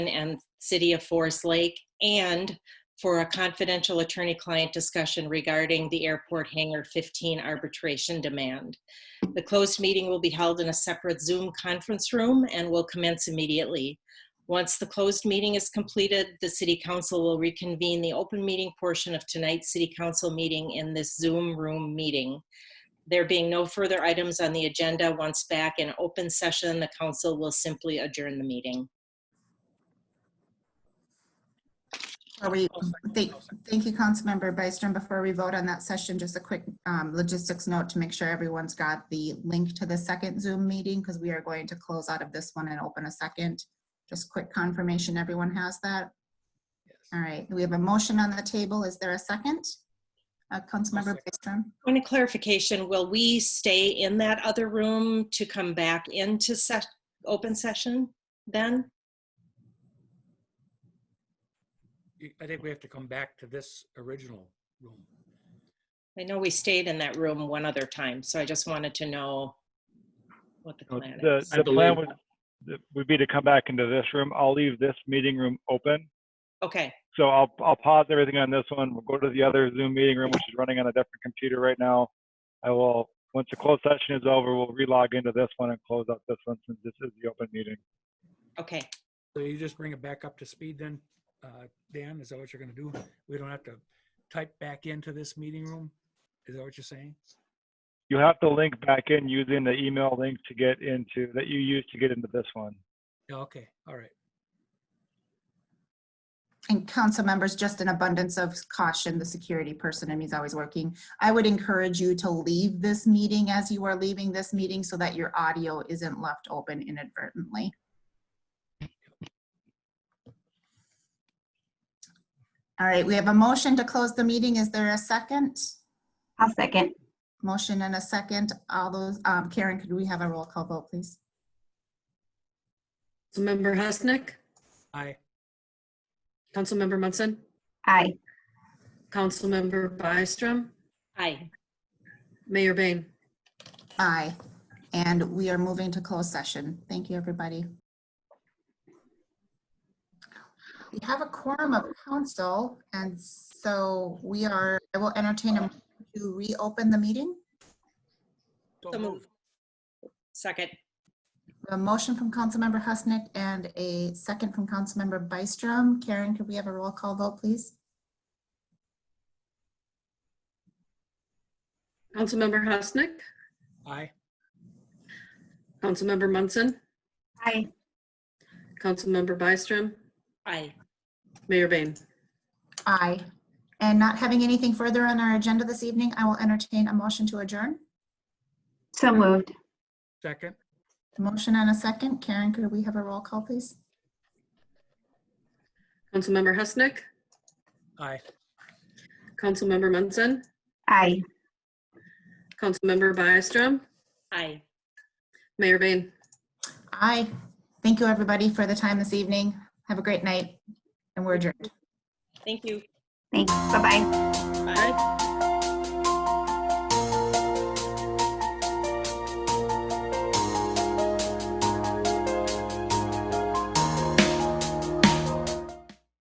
and City of Forest Lake, and for a confidential attorney-client discussion regarding the Airport Hangar 15 arbitration demand. The closed meeting will be held in a separate Zoom conference room and will commence immediately. Once the closed meeting is completed, the City Council will reconvene the open meeting portion of tonight's City Council meeting in this Zoom room meeting. There being no further items on the agenda, once back in open session, the council will simply adjourn the meeting. Are we, Oh, thank, thank you, Councilmember Byström. Before we vote on that session, just a quick um, logistics note to make sure everyone's got the link to the second Zoom meeting because we are going to close out of this one and open a second. Just quick confirmation, everyone has that? All right, we have a motion on the table. Is there a second? Uh, Councilmember Byström? Point of clarification, will we stay in that other room to come back into se- open session then? You- I think we have to come back to this original room. I know we stayed in that room one other time, so I just wanted to know what the No, plan The, is. the plan would, th- would be to come back into this room. I'll leave this meeting room open. Okay, So I'll, I'll pause everything on this one. We'll go to the other Zoom meeting room, which is running on a different computer right now. I will, once the closed session is over, we'll relog into this one and close out this one since this is the open meeting. okay. So you just bring it back up to speed then, uh, Dan? Is that what you're going to do? We don't have to type back into this meeting room? Is that what you're saying? You have to link back in using the email link to get into, that you used to get into this one. Yeah, Okay, all right. And council members, just an abundance of caution, the security person and he's always working. I would encourage you to leave this meeting as you are leaving this meeting so that your audio isn't left open inadvertently. All right, we have a motion to close the meeting. Is there a second? I'll second. Motion and a second. All those, um, Karen, could we have a roll call vote, please? Councilmember Husnick, Aye. Councilmember Munson, Aye. Councilmember Byström, Aye. Mayor Bain. Aye. And we are moving to closed session. Thank you, everybody. We have a quorum of council, and so we are, I will entertain a motion to reopen the meeting. So So moved. Second, A motion from Councilmember Husnick and a second from Councilmember Byström. Karen, could we have a roll call vote, please? Councilmember Husnick, Aye. Councilmember Munson, Aye. Councilmember Byström, aye. Mayor Bain. Aye. And not having anything further on our agenda this evening, I will entertain a motion to adjourn. So moved. Second? Motion and a second. Karen, could we have a roll call, please? Councilmember Husnick, Aye. Councilmember Munson, Aye. Councilmember Byström, Aye. Mayor Bain. Aye. Thank you, everybody, for the time this evening. Have a great night, and we're adjourned. Thank you. Thanks. Bye-bye.